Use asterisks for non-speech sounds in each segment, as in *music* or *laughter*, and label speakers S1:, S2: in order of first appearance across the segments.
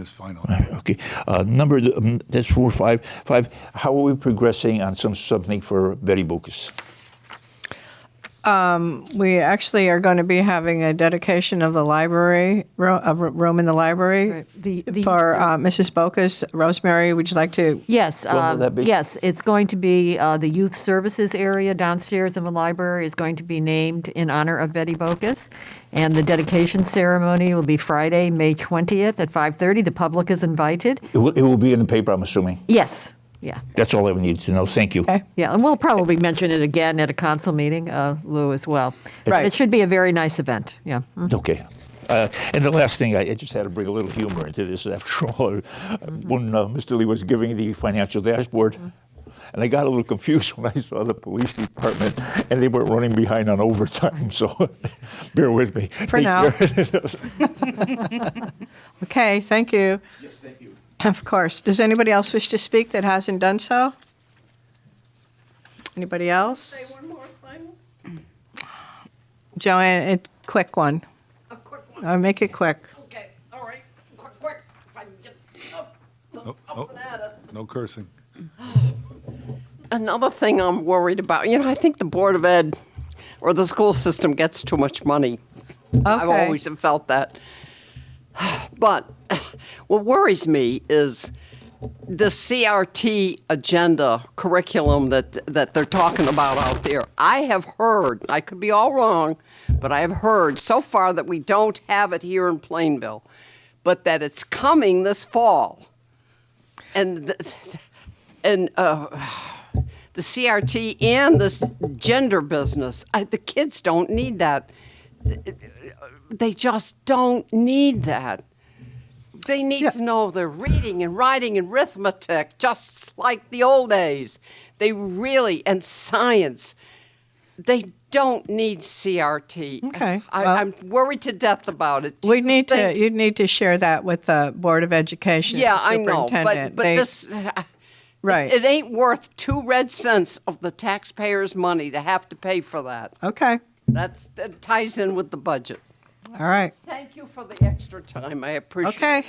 S1: is final.
S2: Okay. Uh, number, um, that's four, five, five. How are we progressing on some something for Betty Bokus?
S3: We actually are going to be having a dedication of the library, ro- of r- room in the library
S4: Right. The- the-
S3: for uh, Mrs. Bokus. Rosemary, would you like to?
S4: Yes,
S2: will
S4: uh,
S2: that be?
S4: yes, it's going to be, uh, the youth services area downstairs of the library is going to be named in honor of Betty Bokus. And the dedication ceremony will be Friday, May 20th at 5:30. The public is invited.
S2: It will, it will be in the paper, I'm assuming.
S4: Yes, yeah,
S2: That's all I need to know. Thank you.
S3: Okay.
S4: yeah. And we'll probably mention it again at a council meeting, uh, Lou, as well.
S3: Right.
S4: But it should be a very nice event, yeah.
S2: Okay. Uh, and the last thing, I, I just had to bring a little humor into this. After all, when uh, Mr. Lee was giving the financial dashboard, and I got a little confused *laughs* when I saw the police department, and they were running behind on overtime. *laughs* So, bear with me.
S3: For now. *laughs* Okay, thank you. Yes, thank you. Of course. Does anybody else wish to speak that hasn't done so? Anybody else?
S5: One more final?
S3: Joanne, a quick one.
S5: A quick one,
S3: Uh, Make it quick.
S5: okay, Oh, all right, quick, quick, if I can get up,
S1: Oh,
S5: up
S1: oh.
S5: and at it.
S1: No cursing.
S5: uh, Another thing I'm worried about, you know, I think the Board of Ed or the school system gets too much money. I've
S3: Okay.
S5: always felt that. But what worries me is the CRT agenda curriculum that, that they're talking about out there. I have heard, I could be all wrong, but I have heard so far that we don't have it here in Plainville, but that it's coming this fall. And, th- and uh, the CRT and this gender business, I, the kids don't need that they just don't need that. They need
S3: Yeah.
S5: to know their reading and writing and arithmetic, just like the old days. They really, and science, they don't need CRT.
S3: Okay,
S5: I,
S3: well-
S5: I'm worried to death about it. Do
S3: We
S5: you
S3: need to,
S5: think-
S3: you'd need to share that with the Board of Education, the
S5: Yeah, I know, but,
S3: superintendent.
S5: but
S3: They-
S5: this.
S3: Right.
S5: It, ain't worth two red cents of the taxpayers' money to have to pay for that.
S3: Okay,
S5: That's, that ties in with the budget.
S3: all right.
S5: Thank you for the extra time. I appreciate it.
S3: Okay.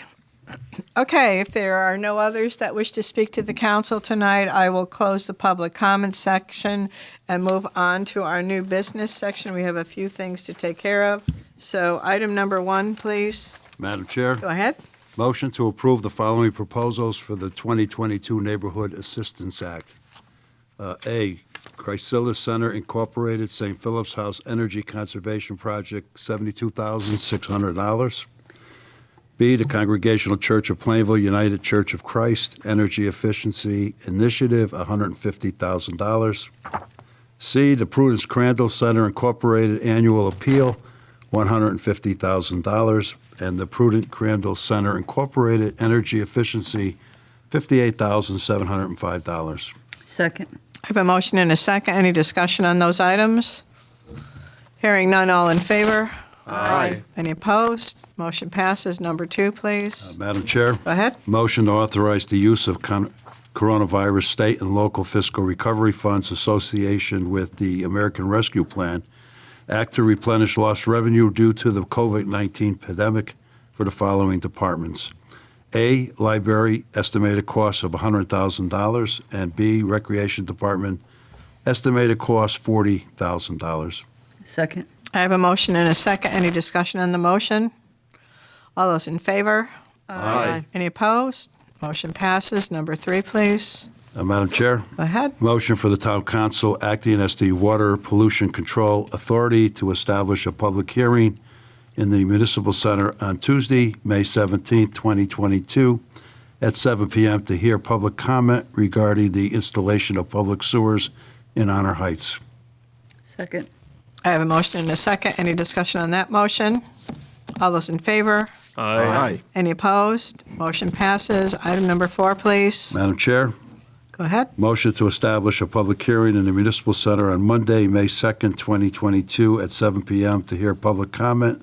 S3: Okay, if there are no others that wish to speak to the council tonight, I will close the public comment section and move on to our new business section. We have a few things to take care of. So item number one, please.
S6: Madam Chair,
S3: Go ahead.
S6: motion to approve the following proposals for the 2022 Neighborhood Assistance Act. Uh, A, Chrysalis Center Incorporated, St. Philip's House Energy Conservation Project, $72,600. B, the Congregational Church of Plainville United Church of Christ Energy Efficiency Initiative, $150,000. C, the Prudence Crandall Center Incorporated Annual Appeal, $150,000, and the Prudent Crandall Center Incorporated Energy Efficiency, $58,705.
S7: Second.
S3: I have a motion and a second. Any discussion on those items? Hearing none, all in favor? Aye. Any opposed? Motion passes. Number two, please.
S6: Uh, Madam Chair,
S3: Go ahead.
S6: motion to authorize the use of con- coronavirus state and local fiscal recovery funds association with the American Rescue Plan, act to replenish lost revenue due to the COVID-19 pandemic for the following departments. A, library, estimated cost of $100,000, and B, recreation department, estimated cost $40,000.
S7: Second.
S3: I have a motion and a second. Any discussion on the motion? All those in favor?
S4: Aye.
S3: Any opposed? Motion passes. Number three, please.
S6: Uh, Madam Chair?
S3: Go ahead.
S6: Motion for the town council acting as the Water Pollution Control Authority to establish a public hearing in the Municipal Center on Tuesday, May 17, 2022, at 7 p.m. to hear public comment regarding the installation of public sewers in Honor Heights.
S7: Second.
S3: I have a motion and a second. Any discussion on that motion? All those in favor?
S8: Aye.
S3: Any opposed? Motion passes. Item number four, please.
S6: Madam Chair?
S3: Go ahead.
S6: Motion to establish a public hearing in the Municipal Center on Monday, May 2nd, 2022, at 7 p.m. to hear public comment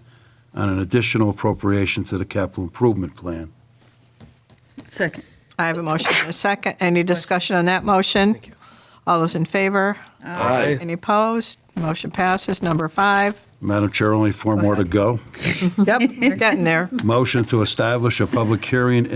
S6: on an additional appropriation to the capital improvement plan.
S7: Second.
S3: I have a motion and a second. Any discussion on that motion? All those in favor?
S8: Aye.
S3: Any opposed? Motion passes. Number five.
S6: Madam Chair, only four more to go.
S3: Yep, *laughs* you're getting there.
S6: Motion to establish a public hearing